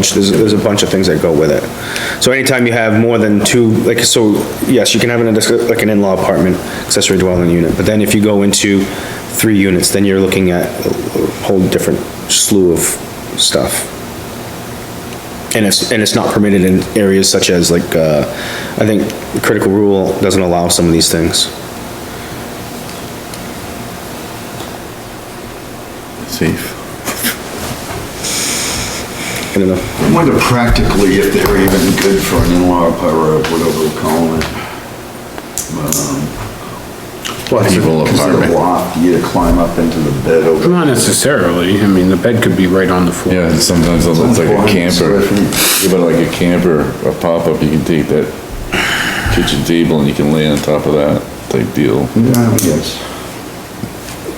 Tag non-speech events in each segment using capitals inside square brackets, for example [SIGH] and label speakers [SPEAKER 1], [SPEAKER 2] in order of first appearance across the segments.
[SPEAKER 1] There's, there's a bunch of things that go with it. So anytime you have more than two, like, so, yes, you can have an, like an in-law apartment, accessory dwelling unit, but then if you go into three units, then you're looking at a whole different slew of stuff. And it's, and it's not permitted in areas such as like, uh, I think critical rule doesn't allow some of these things.
[SPEAKER 2] Safe.
[SPEAKER 1] I don't know.
[SPEAKER 3] I wonder practically if they're even good for an in-law apartment, or whatever we're calling it. um,
[SPEAKER 2] People
[SPEAKER 3] Because they're
[SPEAKER 2] apartment.
[SPEAKER 3] loft, you climb up into the bed over.
[SPEAKER 4] Not necessarily, I mean, the bed could be right on the floor.
[SPEAKER 2] Yeah, sometimes it looks like a camper. Yeah, but like a camper, a pop-up, you can take that kitchen table and you can lay on top of that type deal.
[SPEAKER 3] Yeah, yes.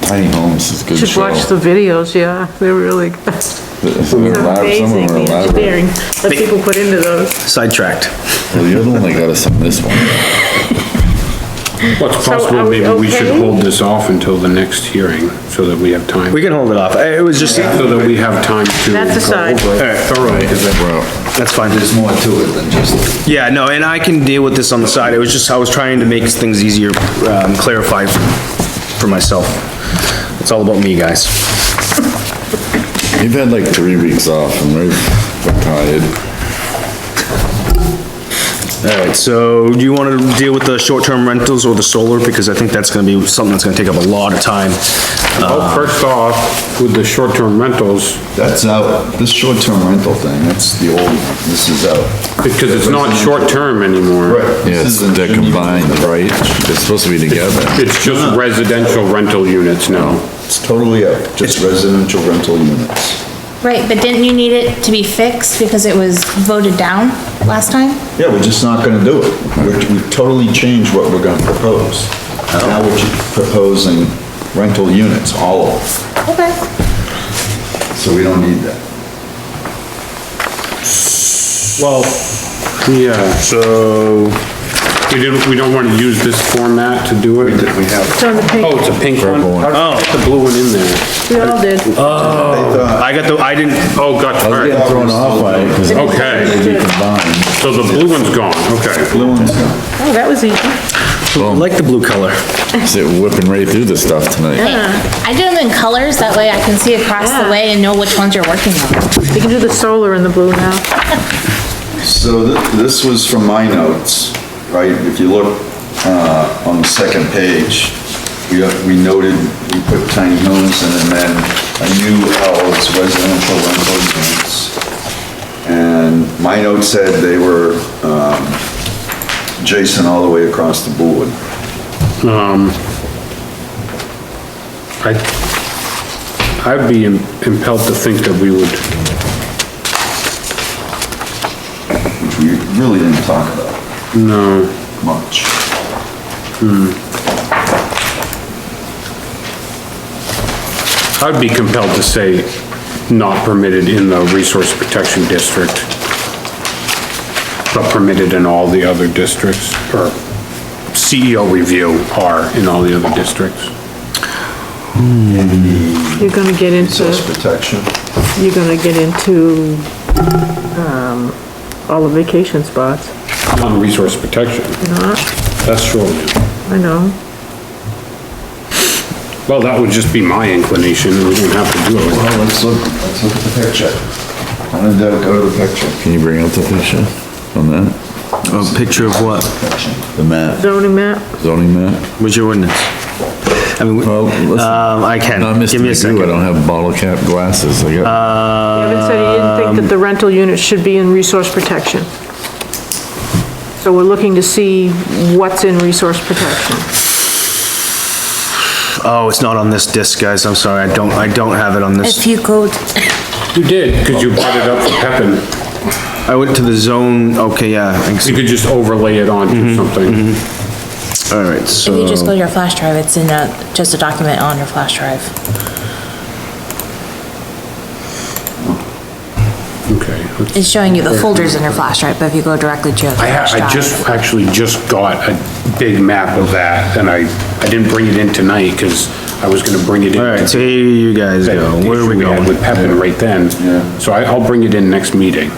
[SPEAKER 2] Tiny homes is a good
[SPEAKER 5] Should
[SPEAKER 2] show.
[SPEAKER 5] watch the videos, yeah, they're really [LAUGHS] good.
[SPEAKER 2] They're elab- Some of
[SPEAKER 5] Amazing,
[SPEAKER 2] them are
[SPEAKER 5] the engineering
[SPEAKER 2] elaborate.
[SPEAKER 5] that people put into those.
[SPEAKER 1] Sidetracked.
[SPEAKER 2] Well, you're the one that got us on this one.
[SPEAKER 4] What's
[SPEAKER 5] So are
[SPEAKER 4] possible,
[SPEAKER 5] we
[SPEAKER 4] maybe we should
[SPEAKER 5] okay?
[SPEAKER 4] hold this off until the next hearing, so that we have time,
[SPEAKER 1] We can hold it off. It was just,
[SPEAKER 4] so that we have time to.
[SPEAKER 5] That's
[SPEAKER 4] go
[SPEAKER 5] aside.
[SPEAKER 4] over it Thoroughly, 'cause that-
[SPEAKER 1] that's fine.
[SPEAKER 3] There's more to it than just.
[SPEAKER 1] Yeah, no, and I can deal with this on the side. It was just, I was trying to make things easier, um, clarify for myself. It's all about me, guys.
[SPEAKER 2] You've had like three weeks off and we're we're tired.
[SPEAKER 1] All right, so do you want to deal with the short-term rentals or the solar? Because I think that's going to be something that's going to take up a lot of time. Uh,
[SPEAKER 4] Well, first off, with the short-term rentals,
[SPEAKER 3] That's out, Uh, this short-term rental thing, that's the old, one. this is out.
[SPEAKER 4] because it's not short-term anymore.
[SPEAKER 2] Yeah,
[SPEAKER 3] This
[SPEAKER 2] it's-
[SPEAKER 3] isn't-
[SPEAKER 2] they're
[SPEAKER 3] shouldn't even-
[SPEAKER 2] combined, right? They're supposed to be together.
[SPEAKER 4] It's just residential rental units now.
[SPEAKER 3] It's totally out, just residential rental units.
[SPEAKER 6] Right, but didn't you need it to be fixed because it was voted down last time?
[SPEAKER 3] Yeah, we're just not gonna do it. We're- We've totally changed what we're gonna propose. Now we're ju- proposing rental units, all of
[SPEAKER 6] Okay.
[SPEAKER 3] them, so we don't need that.
[SPEAKER 4] Well. Yeah,
[SPEAKER 1] So,
[SPEAKER 4] we didn't, we don't want to use this format to do it. We have.
[SPEAKER 5] It's on the
[SPEAKER 4] Oh,
[SPEAKER 5] pink,
[SPEAKER 4] it's a pink one? How did you get the blue one in there?
[SPEAKER 5] we all did.
[SPEAKER 1] I got the, I didn't,
[SPEAKER 4] Oh, gotcha, all right.
[SPEAKER 2] Thrown off by it 'cause
[SPEAKER 4] okay, so the blue one's gone, okay.
[SPEAKER 3] Blue one's gone.
[SPEAKER 5] Oh, that was easy.
[SPEAKER 1] I like the blue color.
[SPEAKER 2] they're whipping right through this stuff tonight.
[SPEAKER 6] I do them in colors, that way I can see across the
[SPEAKER 5] Yeah.
[SPEAKER 6] way and know which ones you're working on.
[SPEAKER 5] We can do the solar in the blue now.
[SPEAKER 3] So th- this was from my notes, right? If you look uh, on the second page, we uh, we noted, we put tiny homes in and then a new L is residential rental units. And my note said they were um, Jason all the way across the board.
[SPEAKER 4] Um, I, I'd be im- impelled to think that we would,
[SPEAKER 3] which we really didn't talk about
[SPEAKER 4] no,
[SPEAKER 3] much.
[SPEAKER 4] I'd be compelled to say not permitted in the resource protection district, but permitted in all the other districts, or CEO review are in all the other districts.
[SPEAKER 5] You're gonna get into,
[SPEAKER 3] Resource protection.
[SPEAKER 5] you're gonna get into, um, all the vacation spots,
[SPEAKER 4] On resource protection, that's short.
[SPEAKER 5] I know.
[SPEAKER 4] Well, that would just be my inclination, we wouldn't have to do it.
[SPEAKER 3] Well, let's look, let's look at the picture. How did that go to the picture?
[SPEAKER 2] Can you bring out the picture on that?
[SPEAKER 1] A picture of what?
[SPEAKER 2] The map,
[SPEAKER 5] Zoning map,
[SPEAKER 2] zoning map?
[SPEAKER 1] What's your ordinance? I mean,
[SPEAKER 2] Well, listen.
[SPEAKER 1] um, I can,
[SPEAKER 2] Not Mr.
[SPEAKER 1] give me a
[SPEAKER 2] Magoo, I
[SPEAKER 1] second. Uh,
[SPEAKER 2] don't have bottle cap glasses, I got,
[SPEAKER 5] Kevin said he didn't think that the rental unit should be in resource protection. So we're looking to see what's in resource protection.
[SPEAKER 1] Oh, it's not on this disc, guys. I'm sorry. I don't, I don't have it on this.
[SPEAKER 6] you go.
[SPEAKER 4] You did, because you brought it up for Pepin.
[SPEAKER 1] I went to the zone, okay, yeah, thanks.
[SPEAKER 4] You could just overlay it
[SPEAKER 1] Mm-hmm.
[SPEAKER 4] onto something.
[SPEAKER 1] All right, so.
[SPEAKER 6] If you just go to your flash drive, it's in a, just a document on your flash drive.
[SPEAKER 4] Okay. let's-
[SPEAKER 6] It's showing you the folders in your flash drive, but if you go directly to your
[SPEAKER 4] I
[SPEAKER 6] flash
[SPEAKER 4] ha-
[SPEAKER 6] drive.
[SPEAKER 4] I just, actually just got a big map of that, and I, I didn't bring it in tonight, because I was gonna bring it in.
[SPEAKER 1] All right, so here you guys
[SPEAKER 4] That
[SPEAKER 1] go. Where are
[SPEAKER 4] issue
[SPEAKER 1] we
[SPEAKER 4] had
[SPEAKER 1] going?
[SPEAKER 4] With Pepin right then.
[SPEAKER 2] Yeah.
[SPEAKER 4] So I, I'll bring it in next meeting.